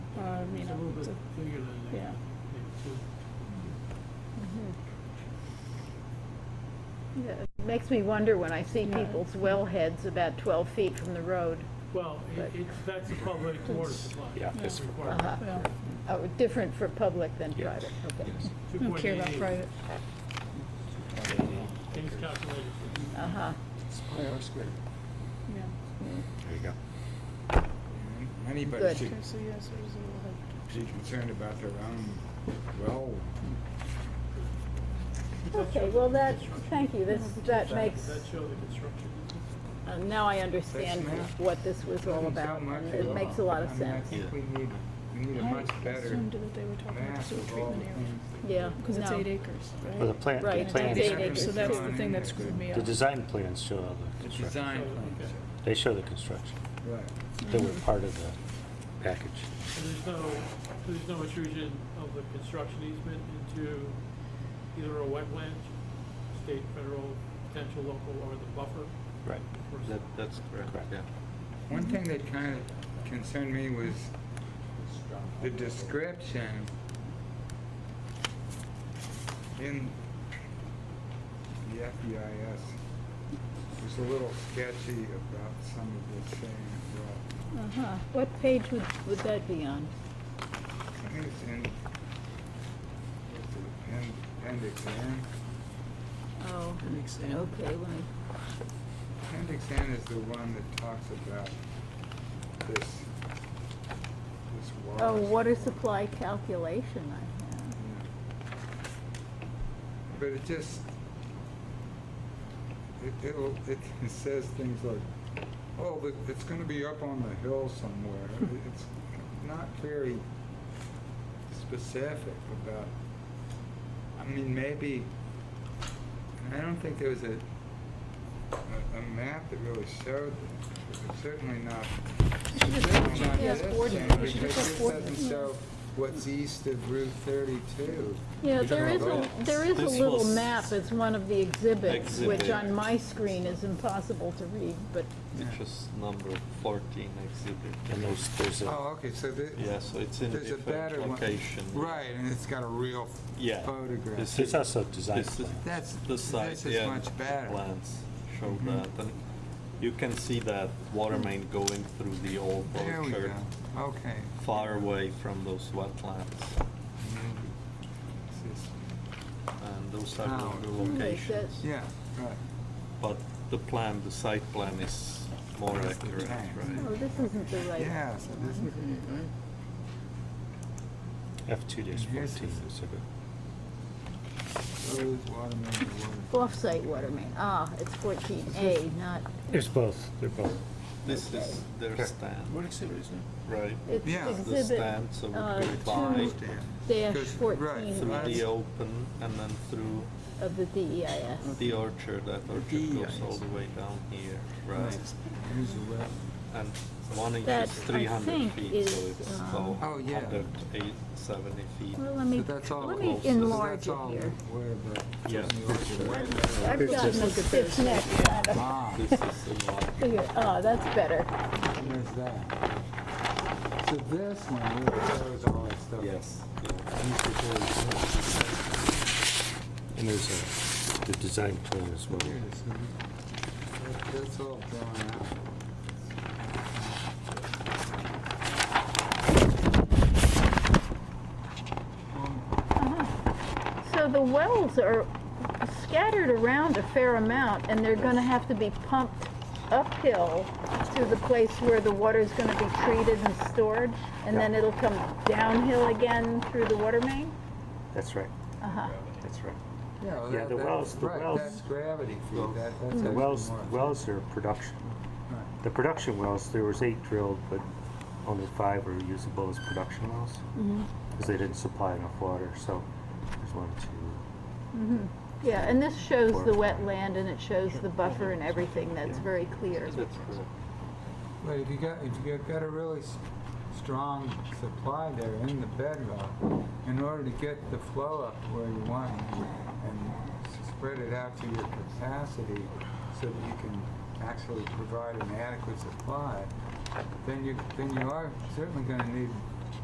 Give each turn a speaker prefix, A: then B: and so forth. A: Uh,
B: was
A: So-
B: bigger than that.
A: yeah.
C: Yeah, It makes me wonder when I see
A: Yeah.
C: people's well heads about 12 feet from the road,
B: Well, it,
C: But-
B: it's, that's a public water supply.
D: Yeah, it's for
B: Required.
C: Uh-huh.
A: Well,
C: oh, different for public than
D: Yeah.
C: private, okay.
D: yes.
A: I don't care about
B: 2.88.
A: private.
B: Things calculated.
C: Uh-huh,
E: Square or square.
A: Yeah.
D: There you go.
E: Anybody
C: Good.
E: should
A: Okay, so yes, there's a little head.
E: be concerned about their own well.
C: okay, well, that, thank you, this, that
B: Does
C: makes,
B: Does that show the construction?
C: uh, now I understand
E: That's not-
C: what this was all
E: Doesn't
C: about.
E: sound much at
C: It
E: all.
C: makes a lot of
E: I mean, I
C: sense,
E: think we need, we need a
A: I
E: much better
A: assumed that they were talking about the
E: map
A: sewer
E: of all the
A: treatment area,
E: things.
C: yeah.
A: because it's
C: no.
A: eight acres, right?
F: Well, the
C: Right,
F: plan, the
A: And
C: it's eight
F: plans,
C: acres.
A: So that's the
E: It's
A: thing
E: on
A: that
E: there.
A: screwed me up.
F: the design plans show all the
E: The
F: construction.
E: design plans,
F: They show the construction.
E: right.
F: They were part of the package.
B: So there's no, so there's no intrusion of the construction easement into either a wetland, state, federal, potential local, or the buffer?
F: Right.
B: or-
G: That, that's correct,
F: Correct.
G: yeah.
E: One thing that kind of concerned me was the description in the FEIS was a little sketchy about some of the saying, well,
C: Uh-huh, what page would, would that be on?
E: I think it's in, what's it, appendix N?
C: Oh, okay, let me,
E: Appendix N is the one that talks about this, this water.
C: oh, water
E: supply.
C: supply calculation I have.
E: But it just, it, it'll, it says things like, oh, but it's gonna be up on the hill somewhere. It's not very specific about, I mean, maybe, I don't think there was a, a, a map that really showed that. It's certainly not, certainly not
A: Yeah,
E: this thing,
A: coordinate. We
E: because
A: should just
E: this
A: coordinate.
E: doesn't show what's east of Route thirty-two.
C: Yeah,
E: You're
C: there
E: talking
C: is a,
E: about-
C: there is a
G: This
C: little
G: was-
C: map as one of the exhibits, which
G: Exhibit.
C: on my screen is impossible to read, but,
G: Which is number fourteen exhibit.
F: And there's, there's a,
E: Oh, okay, so the.
G: Yeah, so it's in a
E: There's a
G: different
E: better one.
G: location.
E: Right, and it's got a real
G: Yeah.
E: photograph.
G: This-
F: there's also a design
G: This is-
F: plan.
E: That's,
G: The
E: this
G: site,
E: is
G: yeah.
E: much better.
G: Plans show
F: Mm-hmm.
E: Mhm.
G: that, and you can see that water main going through the old
E: There we go,
G: orchard,
E: okay.
G: far away from those wetlands,
E: It's just-
G: and those are
E: Now-
G: the
C: Hmm, like
G: locations.
C: that.
E: Yeah, right.
G: But the plan, the site plan is more
E: That's the
G: accurate,
E: plan.
C: oh,
G: right?
C: this isn't the right.
E: Yeah, so this is,
F: F two dash fourteen
E: Yes,
F: exhibit.
E: it's- those water main to water.
C: Off-site water main, ah, it's fourteen A, not,
F: There's both, they're both.
G: This is their stand,
D: exhibit is it?
G: right?
C: it's
E: Yeah. The
G: The
C: exhibit
G: stand, so we
C: uh,
G: go by
C: two
E: Stand.
C: dash
E: Because- right,
C: fourteen
G: through the
C: A
G: open and then through
C: of the E DEIS.
G: The orchard, that orchard
D: Yeah,
G: goes all
D: yes.
G: the way down here, right?
E: Here's the well.
G: And one inch
C: That,
G: is
C: I
G: three hundred
C: think,
G: feet, so
C: is,
G: it's
C: um,
E: Oh, yeah.
G: 170 feet.
C: Well, let
E: So
C: me,
E: that's all.
C: let me
E: close.
G: close. So
C: enlarge
E: That's
C: it
E: all
C: here.
E: where the-
G: Yeah.
E: the orchard.
C: I've
F: It's
C: gotten a
F: just-
C: stiff neck, kind of,
E: Ah,
G: This is a lot.
C: figure- ah, that's better,
E: there's that. So this one really shows all that stuff.
G: Yes, yeah.
E: East of 32.
F: And there's a, the design plan as well.
E: Here it is. That- That's all drawn out.
C: So the wells are scattered around a fair amount, and they're gonna have to be pumped uphill to the place where the water's gonna be treated and stored, and then it'll come downhill again through the water main?
F: That's right,
C: Uh-huh,
F: that's right.
E: Yeah, well,
F: Yeah,
E: that-
F: the
E: that-
F: wells- the
E: right,
F: wells-
E: That's gravity feed, that, that's
F: The
E: actually
F: wells,
E: more-
F: wells are production.
E: Right.
F: The production wells, there was eight drilled, but only five were usable as production wells. Because they didn't supply enough water, so there's one, two,
C: Mm-hmm. yeah, and this shows the wetland, and it shows the buffer and everything, that's very clear.
G: That's correct.
E: But if you got, if you got- got a really s- strong supply there in the bedrock, in order to get the flow up to where you want it and s- spread it out to your capacity so that you can actually provide an adequate supply, then you, then you are certainly gonna need